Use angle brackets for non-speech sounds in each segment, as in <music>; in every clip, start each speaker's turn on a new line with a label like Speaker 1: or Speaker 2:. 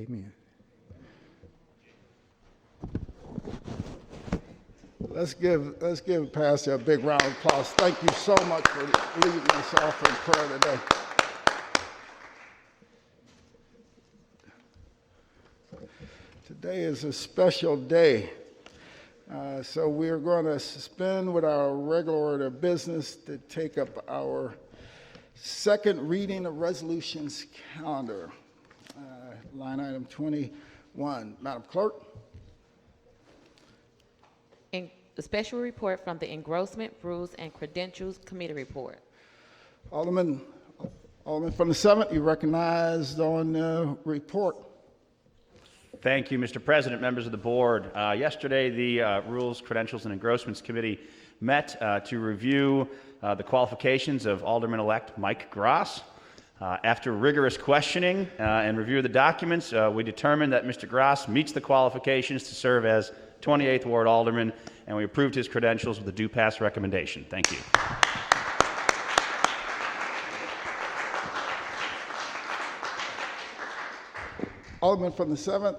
Speaker 1: Amen. Let's give, let's give Pastor a big round of applause. Thank you so much for leading us off in prayer today. Today is a special day. Uh, so we're going to suspend with our regular order of business to take up our second reading of resolutions calendar. Uh, Line item 21. Madam Clerk?
Speaker 2: In the special report from the Engrossment, Rules, and Credentials Committee report.
Speaker 1: Alderman, Alderman from the seventh, you recognized on the report.
Speaker 3: Thank you, Mr. President, members of the board. Uh, Yesterday, the uh, Rules, Credentials, and Engrossments Committee met uh, to review uh, the qualifications of Alderman-elect Mike Gross. Uh, After rigorous questioning uh, and review of the documents, uh, we determined that Mr. Gross meets the qualifications to serve as 28th Ward Alderman, and we approved his credentials with a due pass recommendation. Thank you.
Speaker 1: Alderman from the seventh,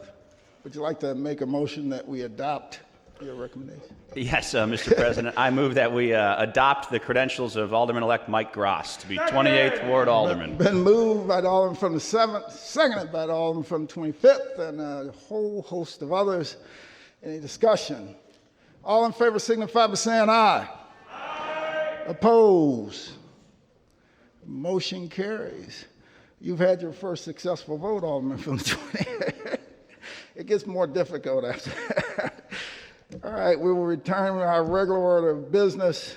Speaker 1: would you like to make a motion that we adopt your recommendation?
Speaker 3: Yes, uh, <laughs> Mr. President, I move that we uh, adopt the credentials of Alderman-elect Mike Gross to be 28th Ward Alderman.
Speaker 1: Been moved by the Alderman from the seventh, seconded by the Alderman from the twenty-fifth, and a whole host of others. Any discussion? All in favor signify by saying aye. Aye. Oppose? Motion carries. You've had your first successful vote, Alderman from the twenty. It gets more difficult after that. <laughs> All right, we will return to our regular order of business.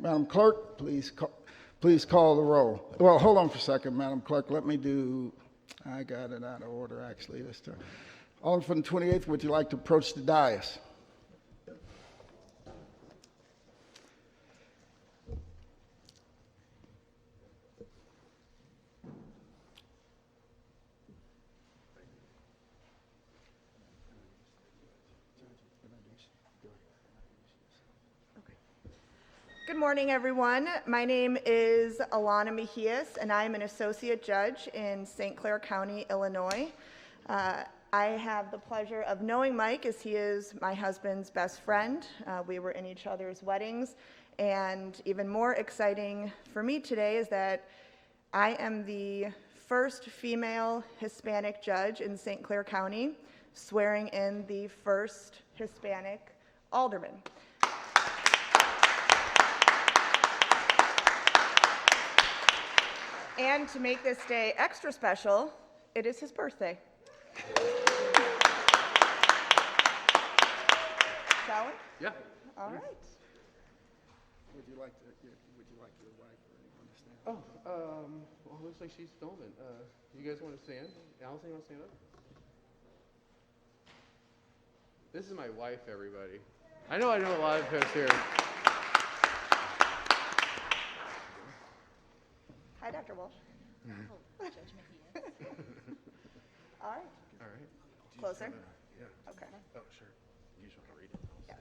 Speaker 1: Madam Clerk, please, ca- please call the roll. Well, hold on for a second, Madam Clerk, let me do, I got it out of order actually this time. Alderman from the 28th, would you like to approach the dais?
Speaker 4: Good morning, everyone. My name is Alana Mejias, and I am an associate judge in St. Clair County, Illinois. Uh, I have the pleasure of knowing Mike as he is my husband's best friend. Uh, We were in each other's weddings, and even more exciting for me today is that I am the first female Hispanic judge in St. Clair County, swearing in the first Hispanic alderman. And to make this day extra special, it is his birthday. Shall we? Yeah. All right.
Speaker 1: Would you like to, would you like your wife or anyone to stand?
Speaker 5: Oh, um, well, it looks like she's filming. Uh, you guys want to stand? Allison, you want to stand up? This is my wife, everybody. I know I know a lot of folks here.
Speaker 4: Hi, Dr. Walsh. All right,
Speaker 5: All right.
Speaker 4: closer. Okay.
Speaker 5: Oh, sure. You just want to read it.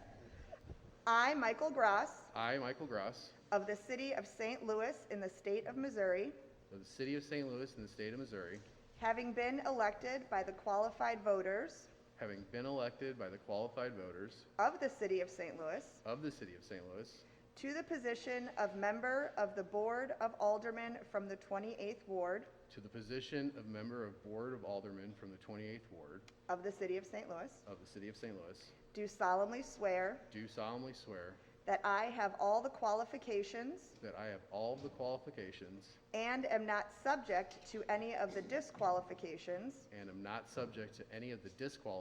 Speaker 4: I, Michael Gross,
Speaker 5: I, Michael Gross,
Speaker 4: of the city of St. Louis in the state of Missouri,
Speaker 5: of the city of St. Louis in the state of Missouri,
Speaker 4: having been elected by the qualified voters
Speaker 5: having been elected by the qualified voters
Speaker 4: of the city of St. Louis
Speaker 5: of the city of St. Louis
Speaker 4: to the position of member of the Board of Aldermen from the 28th Ward
Speaker 5: to the position of member of Board of Aldermen from the 28th Ward
Speaker 4: of the city of St. Louis,
Speaker 5: of the city of St. Louis,
Speaker 4: do solemnly swear
Speaker 5: do solemnly swear
Speaker 4: that I have all the qualifications
Speaker 5: that I have all of the qualifications
Speaker 4: and am not subject to any of the disqualifications
Speaker 5: and am not subject to any of the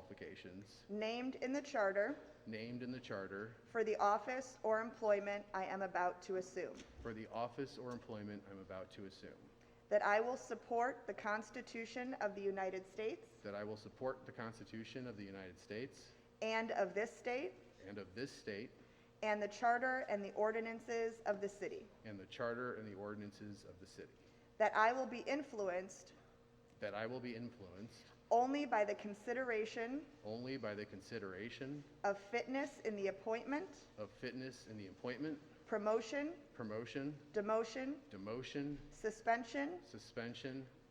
Speaker 5: disqualifications
Speaker 4: named in the charter
Speaker 5: named in the charter
Speaker 4: for the office or employment I am about to assume,
Speaker 5: for the office or employment I'm about to assume,
Speaker 4: that I will support the Constitution of the United States
Speaker 5: that I will support the Constitution of the United States
Speaker 4: and of this state,
Speaker 5: and of this state,
Speaker 4: and the charter and the ordinances of the city,
Speaker 5: and the charter and the ordinances of the city,
Speaker 4: that I will be influenced
Speaker 5: that I will be influenced
Speaker 4: only by the consideration
Speaker 5: only by the consideration
Speaker 4: of fitness in the appointment,
Speaker 5: of fitness in the appointment,
Speaker 4: promotion,
Speaker 5: promotion,
Speaker 4: demotion,
Speaker 5: demotion,
Speaker 4: suspension,
Speaker 5: suspension,